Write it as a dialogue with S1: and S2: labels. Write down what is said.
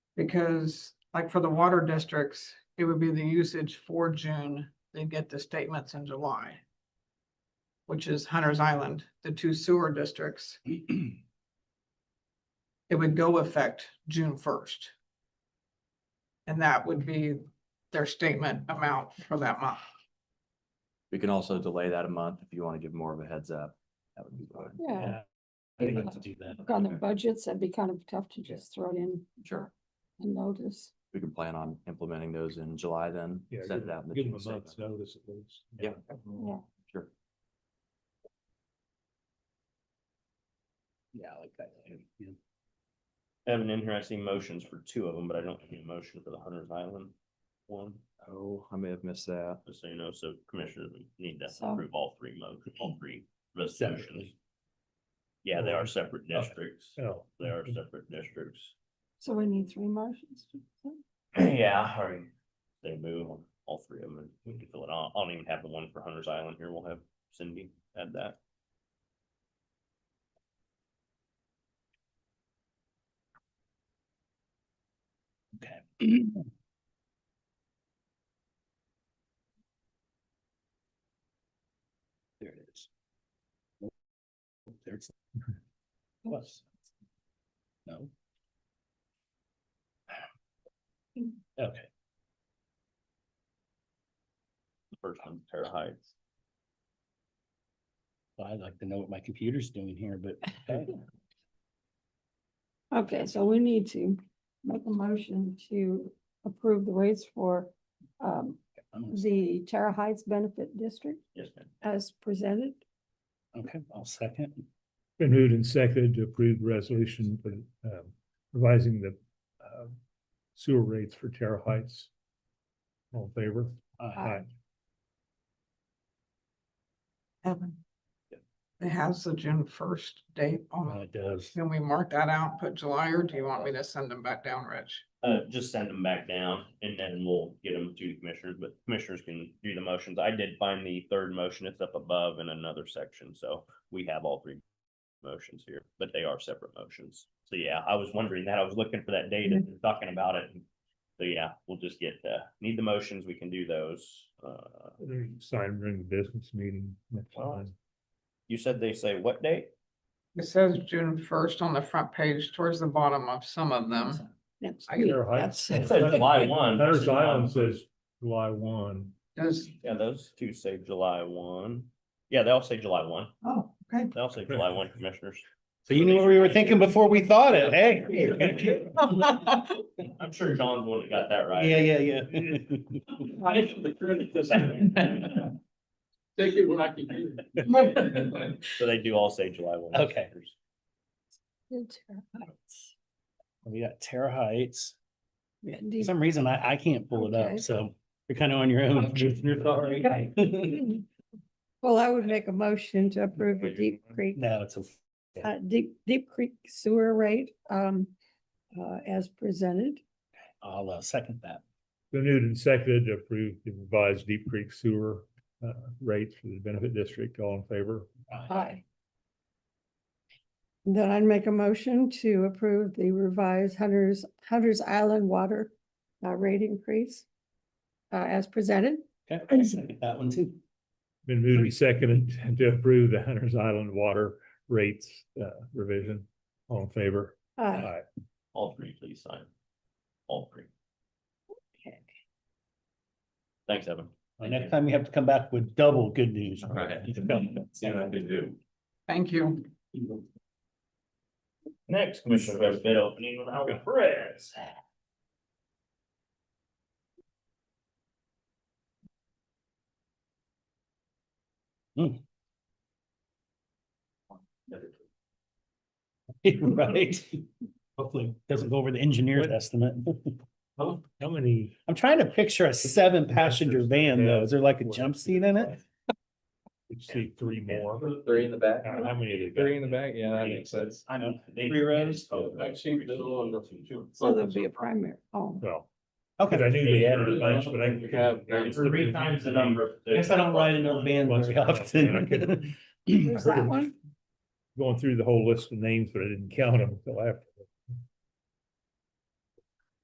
S1: Because like for the water districts, it would be the usage for June, they'd get the statements in July. Which is Hunter's Island, the two sewer districts. It would go effect June first. And that would be their statement amount for that month.
S2: We can also delay that a month if you want to give more of a heads up. That would be fine.
S3: Yeah,
S4: I think let's do that.
S3: look on their budgets, that'd be kind of tough to just throw it in
S2: Sure.
S3: and notice.
S2: We can plan on implementing those in July then.
S4: Yeah,
S2: Set
S4: give
S2: it out. in
S4: them
S2: the
S4: give them
S2: June
S4: a month's
S2: statement.
S4: notice at least.
S2: Yeah.
S3: Yeah.
S2: Sure.
S4: Yeah, I like that. Yeah.
S5: I have an interesting motions for two of them, but I don't have any motion for the Hunter's Island one,
S2: Oh, I may have missed that.
S5: just so you know, so commissioners we need to
S3: So-
S5: approve all three mo, all three resolutions.
S4: Separately.
S5: Yeah, they are separate
S4: Okay.
S5: districts,
S4: Oh.
S5: they are separate districts.
S3: So we need three motions.
S5: Yeah, I mean, they move on all three of them, and we can fill it out, I don't even have the one for Hunter's Island here, we'll have Cindy add that.
S4: Okay. There it is. Nope. There it's. Plus. No. Hmm. Okay.
S5: The First one, Terra Heights,
S4: Well, I'd like to know what my computer's doing here, but okay.
S3: Okay, so we need to make a motion to approve the rates for um
S4: I'm gonna-
S3: the Terra Heights Benefit District
S5: yes, ma'am.
S3: as presented.
S4: okay, I'll second.
S6: Been moved and seconded to approve the resolution for um, revising the uh, sewer rates for Terra Heights. All in favor?
S4: Aye.
S1: Evan. It has the June first date on
S4: Well,
S1: it.
S4: It does.
S1: Can we mark that out, put July, or do you want me to send them back down, Rich?
S5: Uh, just send them back down and then we'll get them to the commissioners, but commissioners can do the motions. I did find the third motion. It's up above in another section, so we have all three motions here, but they are separate motions. So yeah, I was wondering that. I was looking for that data, and talking about it. So yeah, we'll just get, uh, need the motions. We can do those. Uh,
S6: There you Sign during the business meeting. That's
S5: Well,
S6: fine.
S5: you said they say what date?
S1: It says June first on the front page towards the bottom of some of them.
S3: Next
S1: I
S3: week,
S6: Terra Heights.
S3: that's-
S5: It says July one. um,
S6: Hunter's Island says July one.
S1: Does,
S5: Yeah, those two say July one. Yeah, they all say July one.
S1: oh, okay.
S5: They all say July one, commissioners.
S4: So you knew what we were thinking before we thought it, hey?
S5: I'm sure John's the one that got that right.
S4: Yeah, yeah, yeah.
S7: Take it when I can get it.
S5: So they do all say July one.
S4: Okay.
S3: the Terra Heights.
S4: We got Terra Heights.
S3: Yeah,
S4: For
S3: D-
S4: some reason, I, I can't pull it
S3: Okay.
S4: up, so you're kind of on your own.
S3: Well, I would make a motion to approve the Deep Creek
S4: No, it's a,
S3: uh, Deep, Deep Creek sewer rate, um, uh, as presented.
S4: I'll uh, second that.
S6: Been moved and seconded to approve the revised Deep Creek sewer uh, rates for the benefit district. All in favor?
S3: Aye. Then I'd make a motion to approve the revised Hunter's, Hunter's Island water, uh, rate increase, uh, as presented.
S4: Okay, I'll second that one too.
S6: Been moved and seconded to approve the Hunter's Island water rates uh, revision. All in favor?
S3: Uh,
S5: All three, please sign. All three.
S3: Okay.
S5: Thanks, Evan.
S4: Well, Next time you have to come back with double good news.
S5: can do.
S1: Thank you.
S5: Next, Commissioner, we have a bid opening with Albert Perez.
S4: Right? Hopefully, it doesn't go over the engineer's estimate.
S6: How many?
S4: I'm trying to picture a seven passenger van though.
S6: Yeah.
S4: Is there like a jump seat in it?
S6: We see three more.
S7: Three in the back.
S6: Uh, How many? they got?
S7: Three in the back, yeah, that makes sense.
S5: I know.
S7: Three rows? Oh, Actually, the little one, the two.
S3: so there'll be a primary, oh,
S6: Well, because I
S4: Okay.
S6: knew they added a bunch, but I.
S7: Have-
S6: I
S5: Three times the number.
S4: I Guess I don't ride in a van
S6: Once
S4: very
S6: in a while, and I
S4: often.
S6: couldn't-
S3: there's
S6: heard
S3: that
S6: it.
S3: one.
S6: Going through the whole list of names, but I didn't count them until after.